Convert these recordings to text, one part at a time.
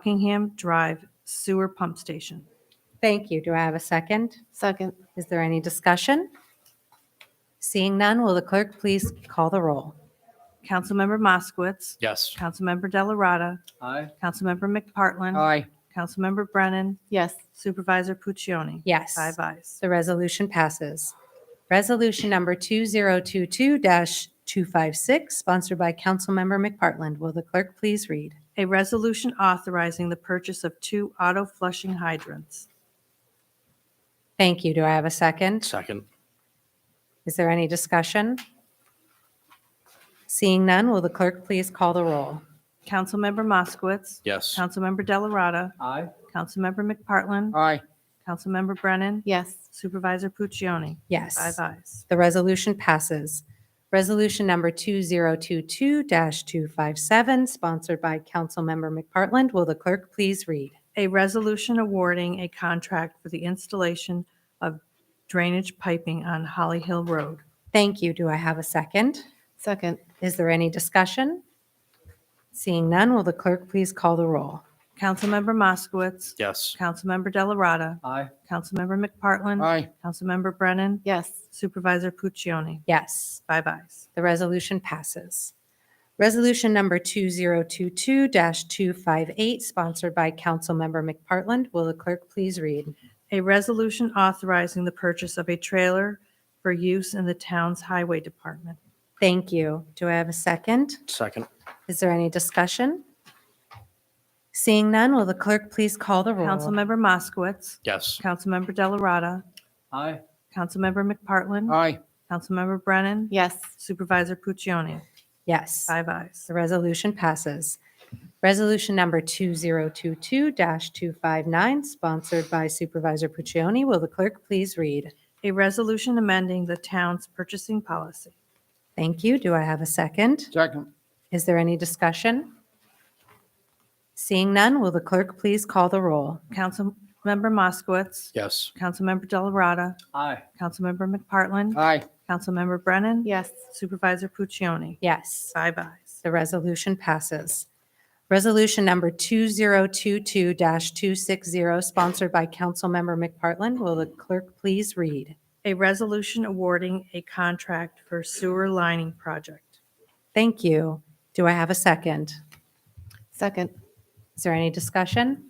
Buckingham Drive Sewer Pump Station. Thank you. Do I have a second? Second. Is there any discussion? Seeing none, will the clerk please call the roll? Councilmember Moskowitz. Yes. Councilmember Delarada. Aye. Councilmember McPartlin. Aye. Councilmember Brennan. Yes. Supervisor Puccioni. Yes. Five ayes. The resolution passes. Resolution number 2022-256, sponsored by Councilmember McPartland. Will the clerk please read? A resolution authorizing the purchase of two auto flushing hydrants. Thank you. Do I have a second? Second. Is there any discussion? Seeing none, will the clerk please call the roll? Councilmember Moskowitz. Yes. Councilmember Delarada. Aye. Councilmember McPartlin. Aye. Councilmember Brennan. Yes. Supervisor Puccioni. Five Yes. ayes. The resolution passes. Resolution number 2022-257, sponsored by Councilmember McPartland. Will the clerk please read? A resolution awarding a contract for the installation of drainage piping on Holly Hill Road. Thank you. Do I have a second? Second. Is there any discussion? Seeing none, will the clerk please call the roll? Councilmember Moskowitz. Yes. Councilmember Delarada. Aye. Councilmember McPartlin. Aye. Councilmember Brennan. Yes. Supervisor Puccioni. Yes, Five ayes. the resolution passes. Resolution number 2022-258, sponsored by Councilmember McPartland. Will the clerk please read? A resolution authorizing the purchase of a trailer for use in the town's highway department. Thank you. Do I have a second? Second. Is there any discussion? Seeing none, will the clerk please call the roll? Councilmember Moskowitz. Yes. Councilmember Delarada. Aye. Councilmember McPartlin. Aye. Councilmember Brennan. Yes. Supervisor Puccioni. Yes. Five ayes. The resolution passes. Resolution number 2022-259, sponsored by Supervisor Puccioni. Will the clerk please read? A resolution amending the town's purchasing policy. Thank you. Do I have a second? Second. Is there any discussion? Seeing none, will the clerk please call the roll? Councilmember Moskowitz. Yes. Councilmember Delarada. Aye. Councilmember McPartlin. Aye. Councilmember Brennan. Yes. Supervisor Puccioni. Yes, Five ayes. the resolution passes. Resolution number 2022-260, sponsored by Councilmember McPartlin. Will the clerk please read? A resolution awarding a contract for sewer lining project. Thank you. Do I have a second? Second. Is there any discussion?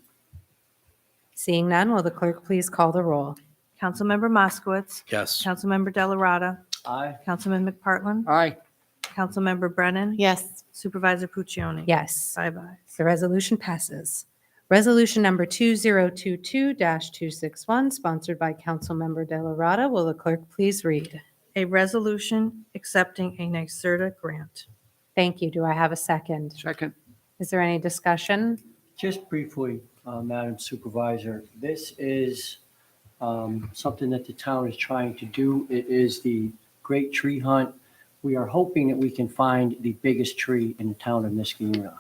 Seeing none, will the clerk please call the roll? Councilmember Moskowitz. Yes. Councilmember Delarada. Aye. Councilman McPartlin. Aye. Councilmember Brennan. Yes. Supervisor Puccioni. Yes, Five ayes. the resolution passes. Resolution number 2022-261, sponsored by Councilmember Delarada. Will the clerk please read? A resolution accepting a NYSERDA grant. Thank you. Do I have a second? Second. Is there any discussion? Just briefly, uh, Madam Supervisor, this is um, something that the town is trying to do. It is the Great Tree Hunt. We are hoping that we can find the biggest tree in the town of Niskuna.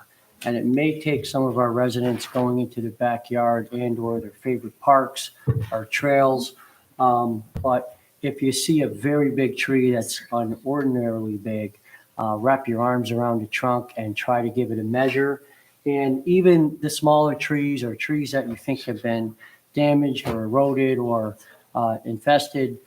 And it may take some of our residents going into the backyard and/or their favorite parks or trails. Um, But if you see a very big tree that's unordinarily big, uh, wrap your arms around the trunk and try to give it a measure. And even the smaller trees or trees that you think have been damaged or eroded or uh, infested,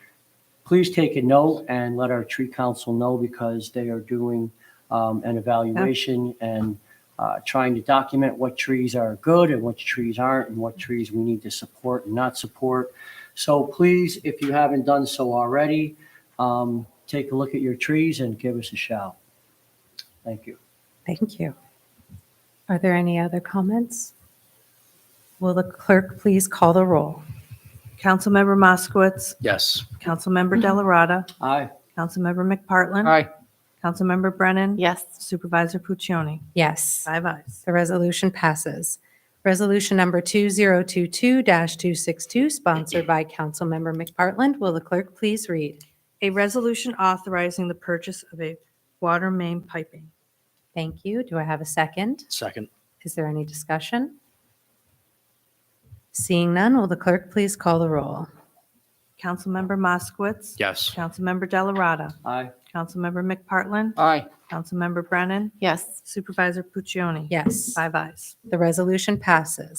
please take a note and let our tree council know because they are doing um, an evaluation and uh, trying to document what trees are good and which trees aren't and what trees we need to support and not support. So please, if you haven't done so already, um, take a look at your trees and give us a shout. Thank you. Thank you. Are there any other comments? Will the clerk please call the roll? Councilmember Moskowitz. Yes. Councilmember Delarada. Aye. Councilmember McPartlin. Councilmember Brennan. Yes. Supervisor Puccioni. Yes. Five ayes. The resolution passes. Resolution number 2022-262, sponsored by Councilmember McPartland. Will the clerk please read? A resolution authorizing the purchase of a water main piping. Thank you. Do I have a second? Second. Is there any discussion? Seeing none, will the clerk please call the roll? Councilmember Moskowitz. Yes. Councilmember Delarada. Aye. Councilmember McPartlin. aye, Councilmember Brennan. yes. Supervisor Puccioni. Yes. Five ayes. The resolution passes.